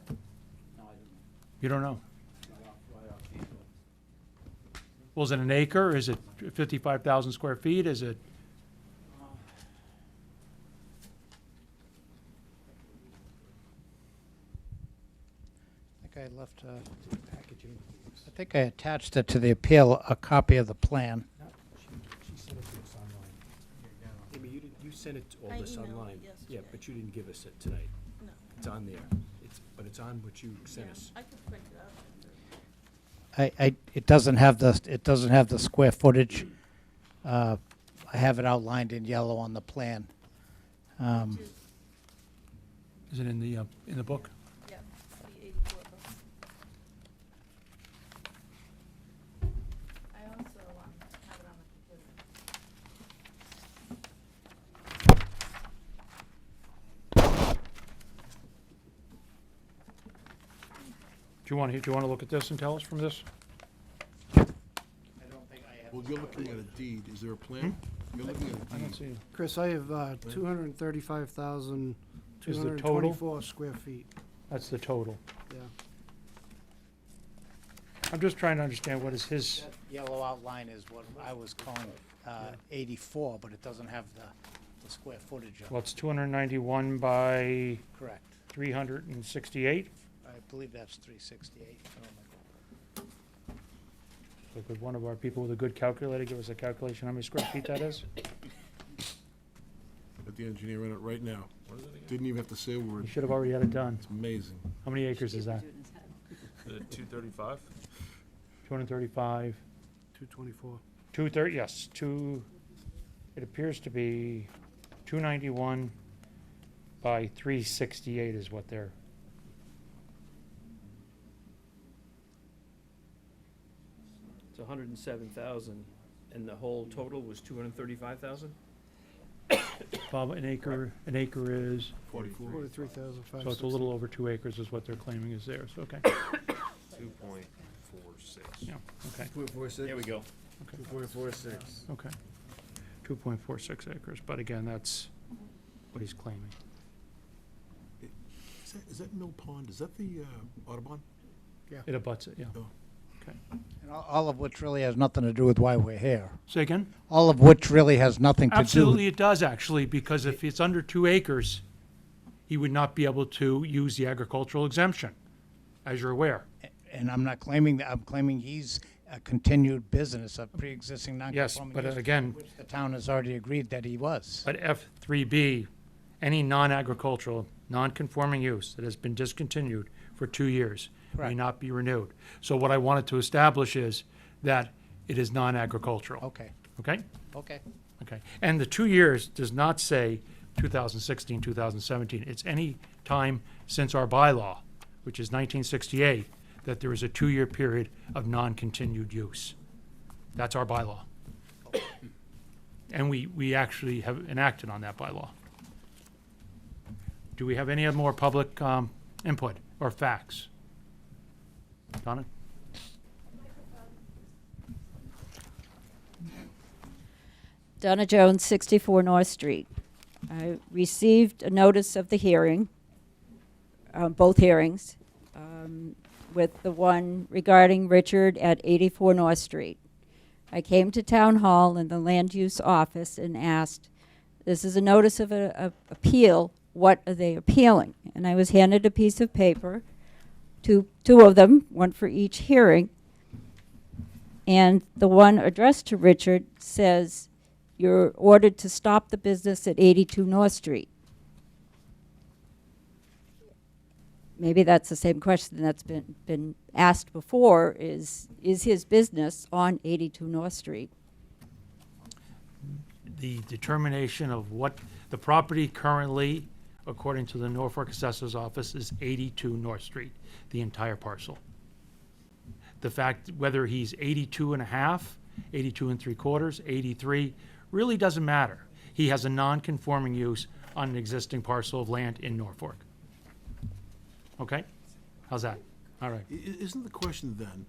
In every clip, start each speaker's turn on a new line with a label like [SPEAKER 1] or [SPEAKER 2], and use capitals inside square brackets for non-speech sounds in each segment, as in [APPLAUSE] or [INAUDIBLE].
[SPEAKER 1] No, I don't
[SPEAKER 2] You don't know?
[SPEAKER 1] know. Right off, right off the handle.
[SPEAKER 2] Well, is it an acre? Is it 55,000 square feet? Is it,
[SPEAKER 3] I think I left uh packaging. I think I attached it to the appeal, a copy of the plan.
[SPEAKER 4] She sent it to us online. Amy, you did, you sent it, all
[SPEAKER 5] I
[SPEAKER 4] this
[SPEAKER 5] emailed it
[SPEAKER 4] online? Yeah,
[SPEAKER 5] yesterday.
[SPEAKER 4] but you didn't give us it tonight.
[SPEAKER 5] No.
[SPEAKER 4] It's on there. It's, but it's on what you sent
[SPEAKER 5] Yeah,
[SPEAKER 4] us.
[SPEAKER 5] I could print it out.
[SPEAKER 3] I, I, it doesn't have the, it doesn't have the square footage. Uh, I have it outlined in yellow on the plan. Um,
[SPEAKER 5] Which is,
[SPEAKER 2] is it in the, uh, in the book?
[SPEAKER 5] yeah, the 84 book. I also um, have it on the computer.
[SPEAKER 2] Do you want to, do you want to look at this and tell us from this?
[SPEAKER 6] Well, you're looking at a deed, is there a plan?
[SPEAKER 4] Hmm?
[SPEAKER 6] You're looking at
[SPEAKER 2] I
[SPEAKER 6] a
[SPEAKER 2] don't
[SPEAKER 6] deed.
[SPEAKER 2] see,
[SPEAKER 7] Chris, I have uh, 235,224 square feet,
[SPEAKER 2] that's the total.
[SPEAKER 7] yeah.
[SPEAKER 2] I'm just trying to understand what is his,
[SPEAKER 3] that Yellow outline is what I was calling, uh, eighty-four, but it doesn't have the, the square footage of
[SPEAKER 2] well,
[SPEAKER 3] it,
[SPEAKER 2] it's 291 by
[SPEAKER 3] correct.
[SPEAKER 2] 368,
[SPEAKER 3] I believe that's three sixty-eight.
[SPEAKER 2] So could one of our people with a good calculator give us a calculation how many square feet that is?
[SPEAKER 6] Got the engineer in it right now. Didn't even have to say a
[SPEAKER 2] You
[SPEAKER 6] word.
[SPEAKER 2] should have already had it done.
[SPEAKER 6] It's amazing.
[SPEAKER 2] How many acres is that?
[SPEAKER 8] The two thirty-five?
[SPEAKER 2] 235,
[SPEAKER 7] 224.
[SPEAKER 2] 230, yes, 2, it appears to be 291 by 368 is what they're,
[SPEAKER 8] It's hundred and seven thousand, and the whole total was two hundred and thirty-five thousand?
[SPEAKER 2] Bob, an acre, an acre is,
[SPEAKER 6] Forty-four.
[SPEAKER 7] 43,560.
[SPEAKER 2] so it's a little over two acres is what they're claiming is theirs, okay,
[SPEAKER 8] Two point four six.
[SPEAKER 2] [COUGHS] yeah, okay,
[SPEAKER 4] Point four six?
[SPEAKER 8] There we go.
[SPEAKER 4] Two point four six.
[SPEAKER 2] okay. 2.46 acres, but again, that's what he's claiming.
[SPEAKER 6] Is that- Is that Mill Pond, is that the uh, Audubon?
[SPEAKER 2] It abuts it, yeah.
[SPEAKER 3] And all, all of which really has nothing to do with why we're here.
[SPEAKER 2] Say again?
[SPEAKER 3] All of which really has nothing to do.
[SPEAKER 2] Absolutely, it does, actually, because if it's under two acres, he would not be able to use the agricultural exemption, as you're aware.
[SPEAKER 3] And I'm not claiming that, I'm claiming he's a continued business of pre-existing
[SPEAKER 2] Yes,
[SPEAKER 3] non-conforming
[SPEAKER 2] but
[SPEAKER 3] use,
[SPEAKER 2] again,
[SPEAKER 3] which the town has already agreed that he was.
[SPEAKER 2] but F3B, any non-agricultural, non-conforming use that has been discontinued for two years may
[SPEAKER 3] Correct.
[SPEAKER 2] not be renewed. So what I wanted to establish is that it is non-agricultural,
[SPEAKER 3] Okay,
[SPEAKER 2] okay?
[SPEAKER 3] okay.
[SPEAKER 2] Okay, and the two years does not say 2016, 2017. It's any time since our bylaw, which is 1968, that there is a two-year period of non-continued use. That's our bylaw. And we, we actually have enacted on that bylaw. Do we have any other more public um, input or facts? Donna?
[SPEAKER 9] Donna Jones, 64 North Street. I received a notice of the hearing, um, both hearings, um, with the one regarding Richard at 84 North Street. I came to Town Hall in the Land Use Office and asked, this is a notice of a, of appeal, what are they appealing? And I was handed a piece of paper, two, two of them, one for each hearing. And the one addressed to Richard says, you're ordered to stop the business at 82 North Street. Maybe that's the same question that's been, been asked before, is, is his business on 82 North Street?
[SPEAKER 2] the determination of what the property currently, according to the Norfolk Assessor's Office, is 82 North Street, the entire parcel. The fact whether he's 82 and a half, 82 and three quarters, 83, really doesn't matter. He has a non-conforming use on an existing parcel of land in Norfolk. Okay? How's that? All right.
[SPEAKER 6] I- i- Isn't the question then,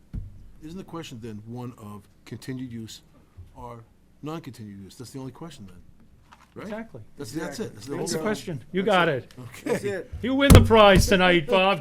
[SPEAKER 6] isn't the question then one of continued use or non-continued use? That's the only question then, right?
[SPEAKER 2] Exactly.
[SPEAKER 6] That's, that's it. That's the whole
[SPEAKER 2] That's the question. You
[SPEAKER 6] That's
[SPEAKER 2] got it.
[SPEAKER 6] Okay.
[SPEAKER 2] You win the prize tonight, Bob.